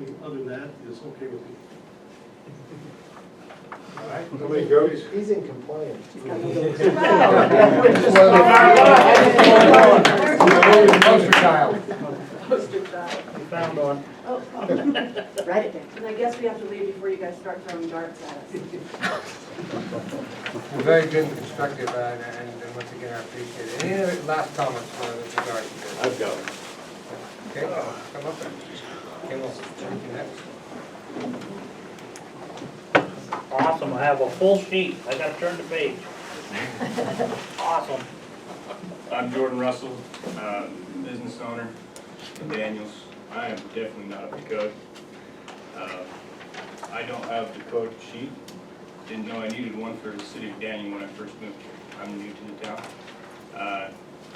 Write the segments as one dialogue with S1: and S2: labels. S1: that is okay with me.
S2: All right,
S3: Nobody goes?
S2: he's in compliance.
S3: Poster child.
S2: Found one.
S4: Write it down.
S5: Oh. And I guess we have to leave before you guys start throwing darts at us.
S3: Well, Very good and constructive, uh, and, and and once again, I appreciate it. Any other last comments for the regard to this?
S6: I've got it.
S3: Okay, come up then. Okay, well, thank you next.
S7: Awesome, I have a full sheet, I gotta turn the page. Awesome.
S8: I'm Jordan Russell, uh, business owner in Daniels. I am definitely not up to code. Uh, I don't have the code sheet. Didn't know I needed one for the city of Daniel when I first moved here. I'm new to the town. Uh,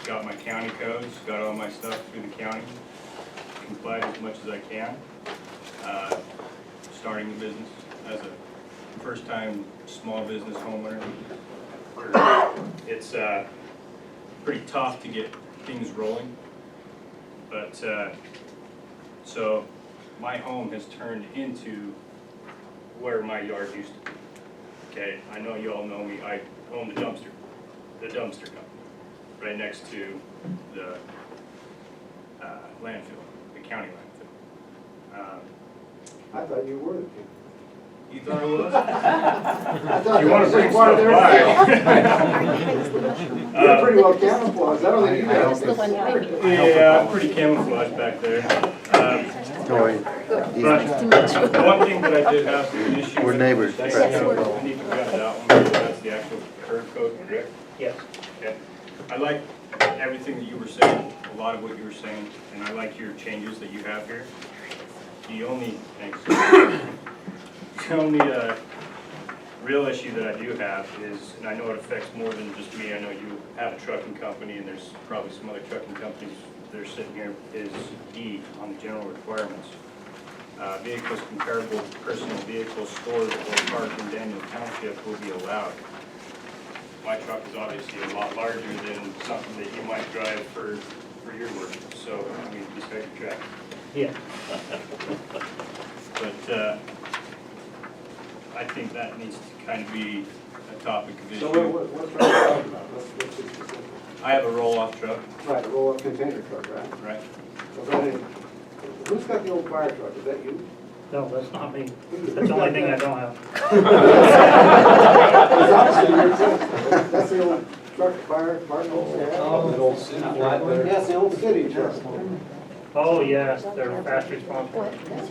S8: Got my county codes, got all my stuff through the county, complied as much as I can. Uh, Starting the business as a first-time small business homeowner. It's, uh, pretty tough to get things rolling. But, uh, so my home has turned into where my yard used to be. Okay, I know you all know me, I own the dumpster, the dumpster company, right next to the uh, landfill, the county landfill. Um,
S2: I thought you were the king.
S8: You thought I was?
S2: I thought
S8: You
S2: that
S8: wanna
S2: was
S8: bring
S2: just part of
S8: stuff
S2: their-
S8: by.
S2: You're pretty well camouflaged, I don't think you
S3: I- I
S2: guys.
S4: Just the one, maybe.
S8: Yeah, I'm pretty camouflaged back there. Um, But the one thing that I did have an issue with.
S9: We're neighbors,
S8: That's-
S9: right.
S8: I need to grab that one, that's the actual curb code, correct?
S7: Yes.
S8: Okay. I like everything that you were saying, a lot of what you were saying, and I like your changes that you have here. The only, thanks. The only, uh, real issue that I do have is, and I know it affects more than just me, I know you have a trucking company, and there's probably some other trucking companies that are sitting here, is E on the general requirements. Uh, vehicles comparable to personal vehicles stored or parked in Daniel Township will be allowed my truck is obviously a lot larger than something that you might drive for, for your work, so, I mean, just take your truck.
S7: Yeah.
S8: But, uh, I think that needs to kind of be a topic of
S2: So what,
S8: issue.
S2: what, what's Rob talking about? What's- what's this specific?
S8: I have a roll-off truck,
S2: Right, a roll-up container truck, right?
S8: right?
S2: So that is- Who's got the old fire truck, is that you?
S7: No, that's not me, that's the only thing I don't have.
S2: It's obviously your truck, that's the old truck, fire, Martin Old
S3: Oh,
S2: Sam.
S3: old city
S2: Yes, the old city truck,
S7: Oh, yes, they're fast response.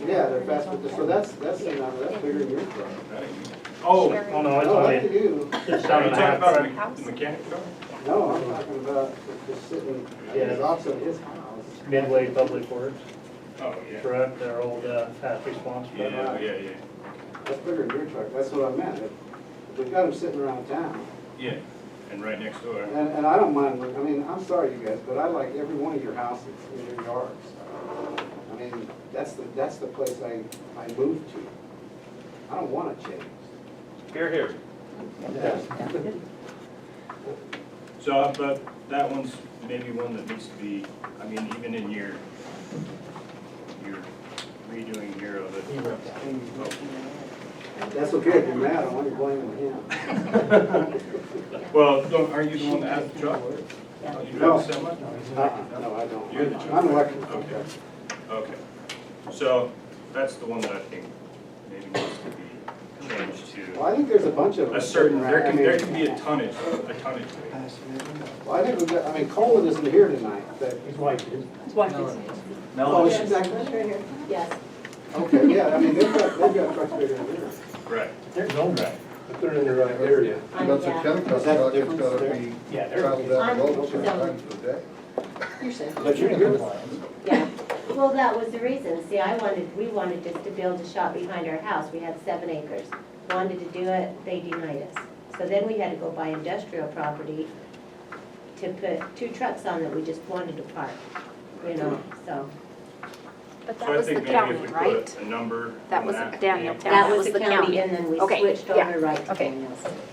S2: yeah, they're fast, but- so that's, that's, not- that's bigger than your truck.
S8: That ain't me. Oh, are
S7: Oh, no, it's
S2: No,
S7: only,
S2: that's you.
S7: it's
S8: you
S7: seven
S8: talking
S7: and a half.
S8: about a me- the mechanic truck?
S2: No, I'm talking about just sitting, it's also his house.
S7: Midway Public Works,
S8: Oh, yeah,
S7: correct, their old, uh, fast response. truck.
S8: yeah, yeah, yeah,
S2: That's bigger than your truck, that's what I meant. If- if We've got them sitting around town,
S8: yeah, and right next door.
S2: and, and I don't mind, I mean, I'm sorry you guys, but I like every one of your houses in your yards. I mean, that's the, that's the place I, I moved to. I don't wanna change.
S6: Here, here.
S8: So, but that one's maybe one that needs to be, I mean, even in your, your redoing here of it.
S2: That's okay if you're mad, I want to blame him.
S8: Well, don't- aren't you the one that has the truck? You drive the semi?
S2: Uh-uh, No, I don't.
S8: You're the truck.
S2: I'm electric.
S8: Okay. Okay. So, that's the one that I think maybe needs to be changed
S2: Well, I
S8: to
S2: think there's a bunch of them.
S8: a certain, there can, there can be
S2: I
S8: a
S2: mean,
S8: tonnage, a tonnage. rate.
S2: Well, I think we've got, I mean, Colin isn't here tonight, but,
S7: His wife is.
S5: His wife is here.
S2: oh, she's not here?
S5: Right here. Yes.
S2: Okay, yeah, I mean, they've got, they've got trucks bigger than yours.
S8: Right.
S1: There's no.
S8: Right.
S2: But they're in the right area.
S9: That's a chemical
S2: Is that the
S9: stock, it's
S2: difference
S9: gotta
S2: there?
S9: be
S7: Yeah, there-
S9: traveled out multiple
S4: I'm-
S9: times a day.
S4: You're safe.
S2: But you're
S4: Yeah, well, that was the reason, see, I wanted, we wanted just to build a shop behind our house, we had seven acres. Wanted to do it, they denied us. So then we had to go buy industrial property to put two trucks on that we just wanted to park, you know, so.
S10: But that
S8: So I
S10: was the
S8: think maybe if we
S10: county, right?
S8: put a number on
S10: That was Daniel Town.
S4: That was the county, and then we
S10: Okay,
S4: switched
S10: yeah.
S4: over right to
S10: Okay.
S4: Daniels.